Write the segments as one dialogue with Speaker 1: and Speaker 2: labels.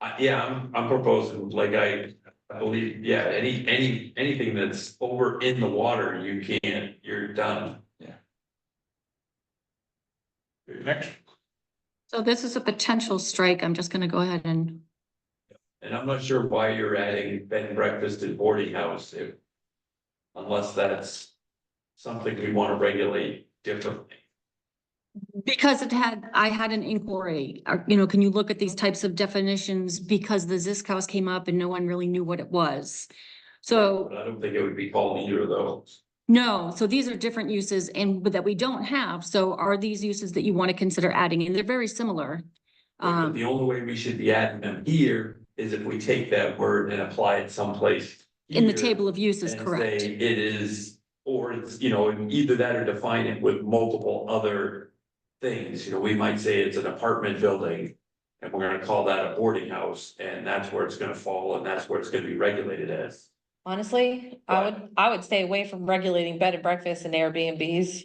Speaker 1: I, yeah, I'm, I'm proposing, like, I, I believe, yeah, any, any, anything that's over in the water, you can't, you're done.
Speaker 2: Next,
Speaker 3: So this is a potential strike. I'm just gonna go ahead and,
Speaker 1: And I'm not sure why you're adding bed and breakfast and boarding house if. Unless that's something we wanna regulate differently.
Speaker 3: because it had, I had an inquiry, uh, you know, can you look at these types of definitions? Because the Zisk House came up and no one really knew what it was. So,
Speaker 1: But I don't think it would be called either of those.
Speaker 3: no, so these are different uses and, but that we don't have. So are these uses that you want to consider adding? And they're very similar.
Speaker 1: But
Speaker 3: Um,
Speaker 1: The only way we should be adding them here is if we take that word and apply it someplace.
Speaker 3: in the
Speaker 1: here
Speaker 3: table of uses,
Speaker 1: and
Speaker 3: correct?
Speaker 1: say It is, or it's, you know, either that or define it with multiple other things, you know, we might say it's an apartment building. And we're gonna call that a boarding house, and that's where it's gonna fall, and that's where it's gonna be regulated as.
Speaker 4: Honestly, I
Speaker 1: What?
Speaker 4: would, I would stay away from regulating bed and breakfast and Airbnbs.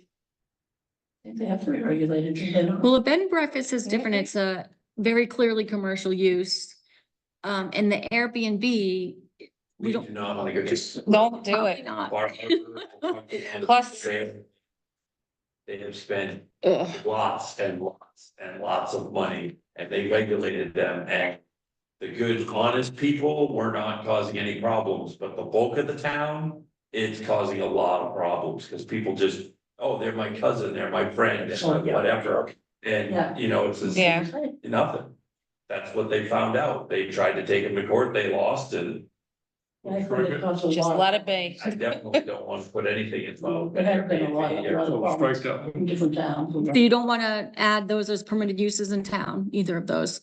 Speaker 5: They have to be regulated. they don't-
Speaker 3: Well, a bed and breakfast is different. It's a very clearly commercial use. Um, and the Airbnb,
Speaker 1: We
Speaker 3: we
Speaker 1: do
Speaker 3: don't.
Speaker 1: not wanna go to.
Speaker 4: Don't do
Speaker 3: probably
Speaker 4: it.
Speaker 3: Not.
Speaker 1: bar harbor.
Speaker 4: Plus-
Speaker 1: They have spent
Speaker 3: Ugh.
Speaker 1: lots and lots and lots of money and they regulated them and. The good, honest people were not causing any problems, but the bulk of the town, it's causing a lot of problems because people just. Oh, they're my cousin, they're my friend,
Speaker 5: Oh, yeah.
Speaker 1: whatever,
Speaker 5: Yeah.
Speaker 1: and you know, it's just
Speaker 4: Yeah.
Speaker 1: nothing. That's what they found out. They tried to take him to court, they lost and.
Speaker 5: I think it costs a
Speaker 4: Just
Speaker 5: lot.
Speaker 4: let it be.
Speaker 1: I definitely don't want to put anything in. my-
Speaker 5: There have been a lot of- lot of
Speaker 2: strike
Speaker 5: problems
Speaker 2: that.
Speaker 5: in different towns.
Speaker 3: So you don't want to add those as permitted uses in town, either of those.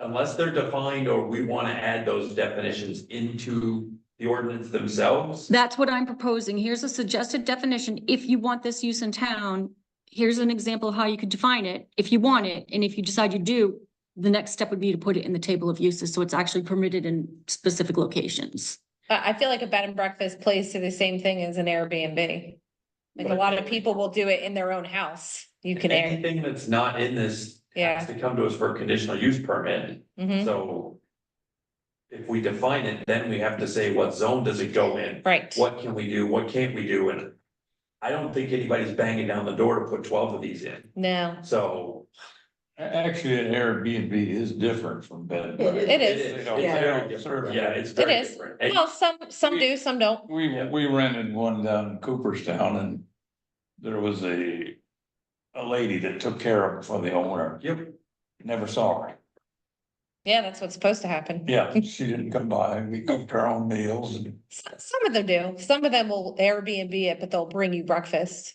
Speaker 1: Unless they're defined or we want to add those definitions into the ordinance themselves.
Speaker 3: That's what I'm proposing. Here's a suggested definition. If you want this use in town, here's an example of how you could define it, if you want it. And if you decide you do, the next step would be to put it in the table of uses, so it's actually permitted in specific locations.
Speaker 4: I, I feel like a bed and breakfast plays to the same thing as an Airbnb. Like a lot of people will do it in their own house. You can air.
Speaker 1: Anything that's not in this has to come to us for a conditional use permit,
Speaker 4: Mhm.
Speaker 1: so. If we define it, then we have to say what zone does it go in,
Speaker 4: Right.
Speaker 1: what can we do, what can't we do, and. I don't think anybody's banging down the door to put twelve of these in,
Speaker 4: No,
Speaker 1: so.
Speaker 2: A- Actually, an Airbnb is different from bed and breakfast.
Speaker 4: it is.
Speaker 2: They
Speaker 1: It's
Speaker 2: don't-
Speaker 1: very
Speaker 2: they don't
Speaker 1: different.
Speaker 2: serve
Speaker 1: Yeah,
Speaker 2: that.
Speaker 1: it's very
Speaker 4: It is.
Speaker 1: different. And-
Speaker 4: Well, some, some do, some don't.
Speaker 2: We, we rented one down in Cooperstown and there was a, a lady that took care of it for the owner,
Speaker 1: Yep.
Speaker 2: never saw her.
Speaker 4: Yeah, that's what's supposed to happen.
Speaker 2: Yeah, she didn't come by, we cooked our own meals and.
Speaker 4: S- Some of them do. Some of them will Airbnb it, but they'll bring you breakfast.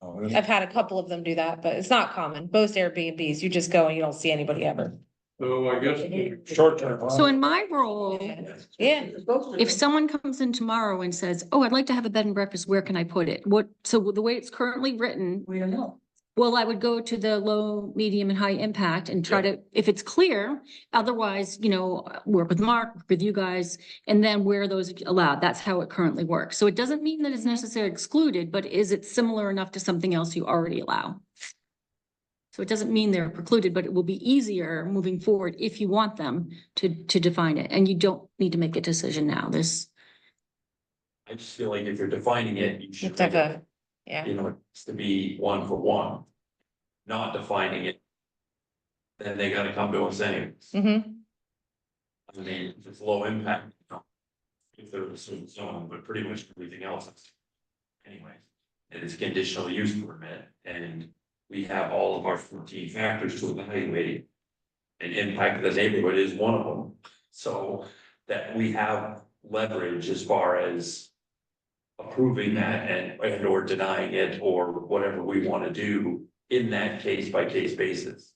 Speaker 2: oh, it was-
Speaker 4: I've had a couple of them do that, but it's not common. Most Airbnbs, you just go and you don't see anybody ever.
Speaker 2: So I guess
Speaker 5: Short
Speaker 2: term.
Speaker 3: So in my role,
Speaker 4: Yeah.
Speaker 3: If someone comes in tomorrow and says, oh, I'd like to have a bed and breakfast, where can I put it? What, so the way it's currently written,
Speaker 5: We don't know.
Speaker 3: well, I would go to the low, medium and high impact and try to, if it's clear, otherwise, you know, work with Mark, work with you guys, and then where those allowed, that's how it currently works. So it doesn't mean that it's necessarily excluded, but is it similar enough to something else you already allow? So it doesn't mean they're precluded, but it will be easier moving forward if you want them to, to define it. And you don't need to make a decision now. This
Speaker 1: I just feel like if you're defining it, you should.
Speaker 4: It's like
Speaker 1: regulate
Speaker 4: a, yeah.
Speaker 1: you know, it's to be one for one. Not defining it. Then they gotta come to us anyways.
Speaker 4: hmm
Speaker 1: I mean, if it's low impact, you know. If they're in a certain zone, but pretty much everything else is. Anyways, it is conditional use permit and we have all of our fourteen factors to evaluate. And impact of the neighborhood is one of them, so that we have leverage as far as. Approving that and and or denying it or whatever we wanna do in that case by case basis.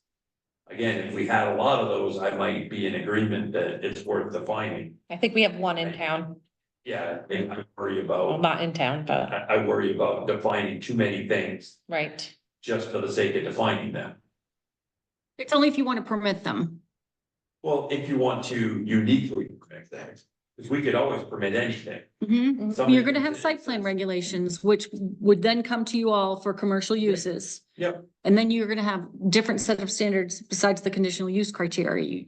Speaker 1: Again, if we had a lot of those, I might be in agreement that it's worth defining.
Speaker 4: I think we have one in town,
Speaker 1: Yeah, I think I worry
Speaker 4: Well,
Speaker 1: about,
Speaker 4: not in town, but,
Speaker 1: I, I worry about defining too many things
Speaker 4: right.
Speaker 1: just for the sake of defining them.
Speaker 3: It's only if you want to permit them.
Speaker 1: Well, if you want to uniquely permit things, because we could always permit anything.
Speaker 3: Mm-hmm. You're gonna have site plan regulations, which would then come to you all for commercial uses.
Speaker 1: Yep.
Speaker 3: And then you're gonna have different set of standards besides the conditional use criteria. You